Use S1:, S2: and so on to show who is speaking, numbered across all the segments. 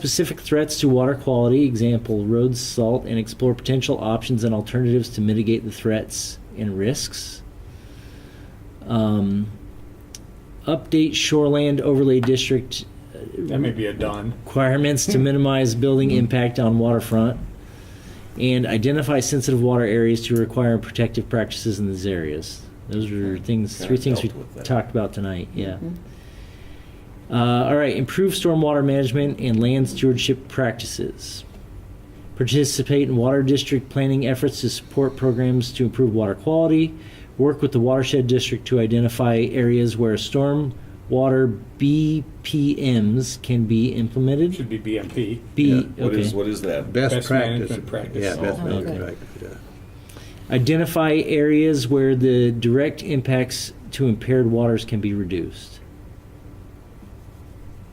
S1: specific threats to water quality, example, road salt, and explore potential options and alternatives to mitigate the threats and risks. Um, update shoreland overlay district
S2: That may be Mm-hmm. a done.
S1: requirements to minimize building impact on waterfront and identify sensitive water areas to require protective practices in these areas. Those are things,
S3: Kinda
S1: three things we
S3: dealt with that. Mm-hmm.
S1: talked about tonight, yeah. Uh, all right, improve stormwater management and land stewardship practices. Participate in water district planning efforts to support programs to improve water quality. Work with the watershed district to identify areas where storm water BPMs can be
S2: It
S1: implemented.
S2: should be BMP.
S3: Yeah,
S1: B,
S3: What is,
S1: okay.
S3: what is that?
S2: Best
S4: Best practice.
S2: management practice.
S4: Yeah, best
S3: Oh,
S4: management
S1: okay.
S4: practice, yeah.
S1: Identify areas where the direct impacts to impaired waters can be reduced.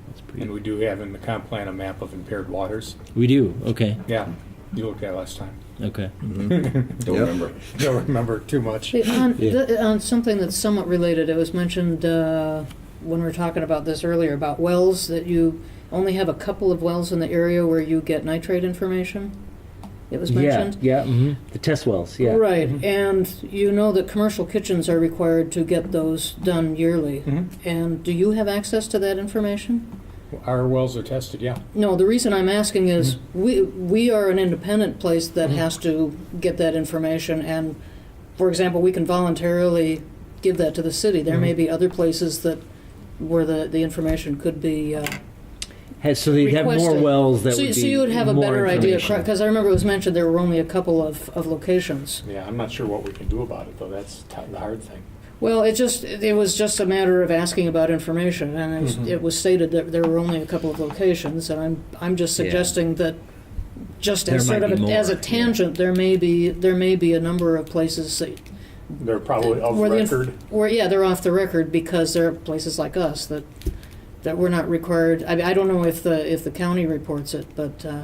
S1: That's
S2: And
S1: pretty.
S2: we do have in the comp plan a map of impaired waters.
S1: We do, okay,
S2: Yeah, you looked at it last time.
S1: okay.
S3: Don't
S4: Yep.
S3: remember.
S2: Don't remember too much.
S5: Wait, On,
S1: Yeah.
S5: th- on something that's somewhat related, it was mentioned uh, when we were talking about this earlier about wells that you only have a couple of wells in the area where you get nitrate information. It was
S1: Yeah,
S5: mentioned.
S1: yeah, mhm. the test wells, yeah. Mm-hmm.
S5: Right, and you know that commercial kitchens are required to get those done yearly.
S1: Mm-hmm.
S2: Mhm.
S5: And do you have access to that information?
S2: Our wells are tested, yeah.
S5: No, the reason I'm asking is
S1: Hmm.
S5: we we are an independent place that has to get that information and for example, we can voluntarily give that to the city. There
S1: Hmm.
S5: may be other places that where the, the information could be uh,
S1: Has- So they'd have more
S5: Requested.
S1: wells that
S5: so,
S1: would be
S5: so you would have a
S1: more
S5: better idea
S1: information.
S5: because I remember it was mentioned there were only a couple of, of locations.
S2: Yeah, I'm not sure what we can do about it, though. That's t- the hard thing.
S5: Well, it just, it was just a matter of asking about information, and it was,
S1: Mm-hmm.
S2: Mhm.
S5: it was stated that there were only a couple of locations, and I'm, I'm just
S1: Yeah.
S5: suggesting that, just as
S1: There
S5: sort
S1: might
S5: of,
S1: be
S5: a- as
S1: more,
S5: a
S1: yeah.
S5: tangent, there may be, there may be a number of places that.
S2: They're probably off
S5: where the inf-
S2: Oh, record.
S5: Where, yeah, they're off the record because there are places like us that, that we're not required, I, I don't know if the, if the county reports it, but, uh,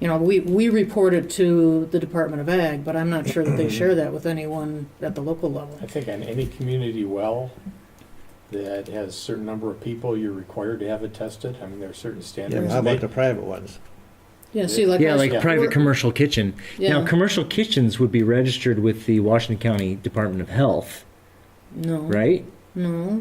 S5: you know, we, we report it to the Department of Ag, but I'm not sure that they share that with anyone at the local level.
S2: I think on any community well that has a certain number of people, you're required to have it tested. I mean, there are certain
S4: Yeah,
S2: standards.
S4: how
S2: They-
S4: about the private ones?
S5: Yeah, see, like.
S1: Yeah,
S5: us-
S1: like
S2: Yeah.
S1: private
S5: we're-
S1: commercial kitchen. Now,
S5: Yeah.
S1: commercial kitchens would be registered with the Washington County Department of Health,
S5: No.
S1: right?
S5: No. Mm-hmm. We re-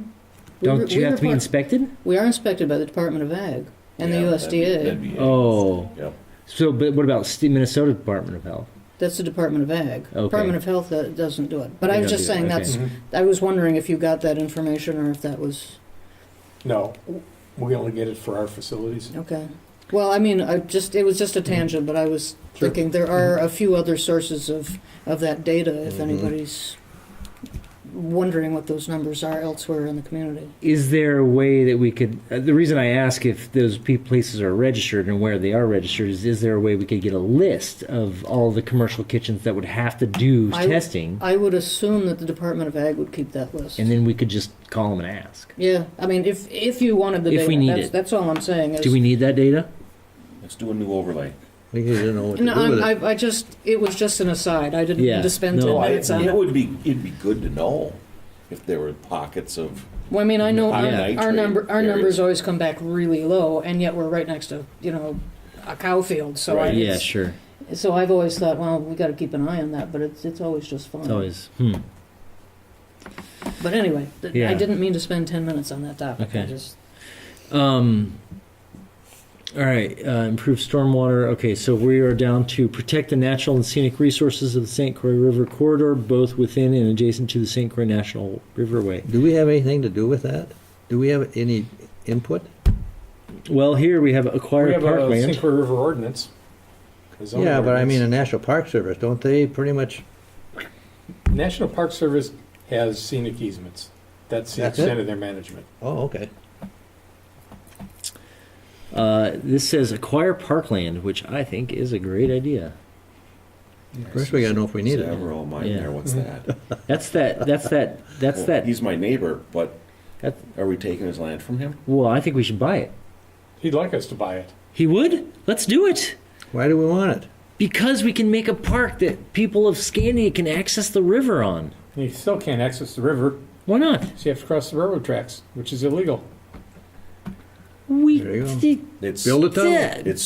S1: Don't you
S5: we
S1: have to be
S5: report-
S1: inspected?
S5: We are inspected by the Department of Ag and
S3: Yeah,
S5: the
S3: that'd be- that'd
S5: USDA.
S3: be it.
S1: Oh,
S3: Yep.
S1: so but what about st- Minnesota Department of Health?
S5: That's the Department of Ag.
S1: Okay.
S5: Department of Health uh, doesn't do it. But
S1: They
S5: I was
S1: don't
S5: just
S1: do it,
S5: saying
S1: okay.
S5: that's.
S2: Mhm.
S5: I was wondering if you got that information or if that was
S2: No, we only get it for our facilities.
S5: okay. Well, I mean, I just it was just
S1: Mm-hmm.
S5: a tangent, but I was
S2: Sure.
S5: thinking there are a few other sources of of that data
S1: Mm-hmm.
S5: if anybody's wondering what those numbers are elsewhere in the community.
S1: Is there a way that we could? Uh, the reason I ask if those pe- places are registered and where they are registered is: is there a way we could get a list of all the commercial kitchens that would have to do
S5: I-
S1: testing,
S5: I would assume that the Department of Ag would keep that list.
S1: and then we could just call them and ask?
S5: Yeah, I mean, if, if you wanted the
S1: If
S5: data.
S1: we need
S5: that's-
S1: it.
S5: That's all I'm saying is.
S1: Do we need that data?
S3: Let's do a new overlay.
S4: We need to know what to
S5: No,
S4: do with
S5: I,
S4: it.
S5: I- I just, it was just an aside, I didn't
S1: Yeah,
S5: mean to spend
S1: no,
S5: ten
S3: Well, I-
S5: minutes on
S3: it
S5: it. uh,
S3: would be, it'd be good to know if there were pockets of,
S5: Well, I mean, I know
S3: Yeah.
S5: our, our number, our
S3: Nitrate
S5: numbers
S3: areas.
S5: always come back really low, and yet we're right next to, you know, a cow field, so I,
S3: Right.
S1: Yeah,
S5: it's-
S1: sure.
S5: so I've always thought, well, we gotta keep an eye on that, but it's, it's always just
S1: It's
S5: fine.
S1: always hmm.
S5: But anyway, th-
S1: Yeah.
S5: I didn't mean to spend ten minutes on that topic, I
S1: Okay.
S5: just,
S1: Um, all right, uh, improve stormwater. Okay, so we are down to protect the natural and scenic resources of the St. Croix River corridor, both within and adjacent to the St. Croix National Riverway.
S4: Do we have anything to do with that? Do we have any input?
S1: Well, here we have
S2: We
S1: acquired
S2: have a
S1: parkland.
S2: St. Croix River ordinance. a zoning
S4: Yeah, but I mean, the
S2: ordinance.
S4: National Park Service, don't they pretty much,
S2: National Park Service has scenic easements. That's the
S4: That's
S2: extent
S4: it?
S2: of their management.
S4: oh, okay.
S1: Uh, this says acquire parkland, which I think is a great idea.
S4: First, we gotta know if we need it.
S3: several mine
S1: Yeah.
S3: there, what's that?
S1: That's that. That's that. That's
S3: Well,
S1: that.
S3: He's my neighbor, but
S1: that.
S3: are we taking his land from him?
S1: Well, I think we should buy it.
S2: He'd like us to buy it.
S1: He would. Let's do it.
S4: Why do we want it?
S1: Because we can make a park that people of Scandia can access the river on.
S2: And You still can't access the river,
S1: Why not?
S2: so you have to cross the railroad tracks, which is illegal.
S4: We
S1: There you go.
S4: did
S3: It's
S1: Build a tunnel.
S4: did.
S3: it's